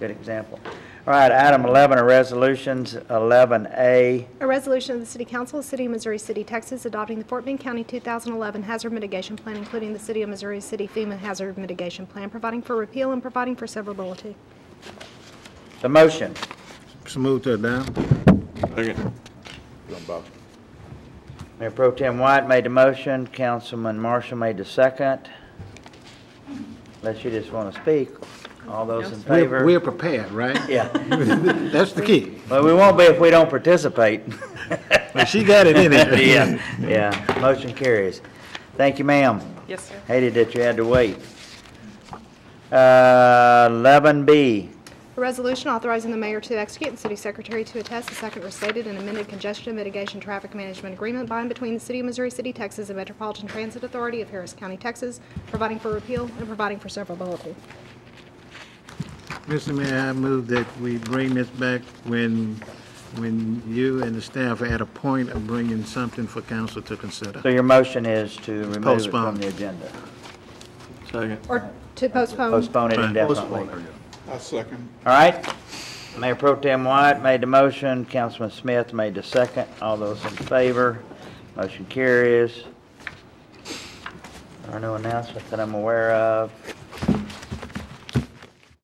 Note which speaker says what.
Speaker 1: Good example. All right, item 11 are resolutions. 11A,
Speaker 2: A resolution of the City Council, of the City of Missouri City, Texas, adopting the Fort Bend County 2011 Hazard Mitigation Plan, including the City of Missouri City FEMA Hazard Mitigation Plan, providing for repeal and providing for severability.
Speaker 1: the motion.
Speaker 3: So move to adopt.
Speaker 4: Second.
Speaker 1: Mayor Pro Tem White made the motion, Councilman Marshall made the second. Unless you just want to speak, all those in
Speaker 3: We're
Speaker 1: favor?
Speaker 3: we're prepared, right?
Speaker 1: Yeah,
Speaker 3: That's the key.
Speaker 1: but we won't be if we don't participate.
Speaker 3: Well, She got it in there.
Speaker 1: Yeah, yeah, motion carries. Thank you, ma'am.
Speaker 5: Yes, sir.
Speaker 1: Hated that you had to wait. Uh, 11B,
Speaker 2: A resolution authorizing the mayor to execute and city secretary to attest the second restated and amended congestion mitigation traffic management agreement by and between the City of Missouri City, Texas, and Metropolitan Transit Authority of Harris County, Texas, providing for repeal and providing for severability.
Speaker 3: Mr. Mayor, I move that we bring this back when, when you and the staff are at a point of bringing something for council to
Speaker 1: so
Speaker 3: consider.
Speaker 1: your motion is to remove it from
Speaker 3: Postpone.
Speaker 1: the agenda?
Speaker 4: Second.
Speaker 2: Or to postpone.
Speaker 1: Postpone it
Speaker 3: Fine.
Speaker 1: indefinitely. All
Speaker 4: I second.
Speaker 1: right. Mayor Pro Tem White made the motion, Councilman Smith made the second. All those in favor, motion carries. There are no announcements that I'm aware of.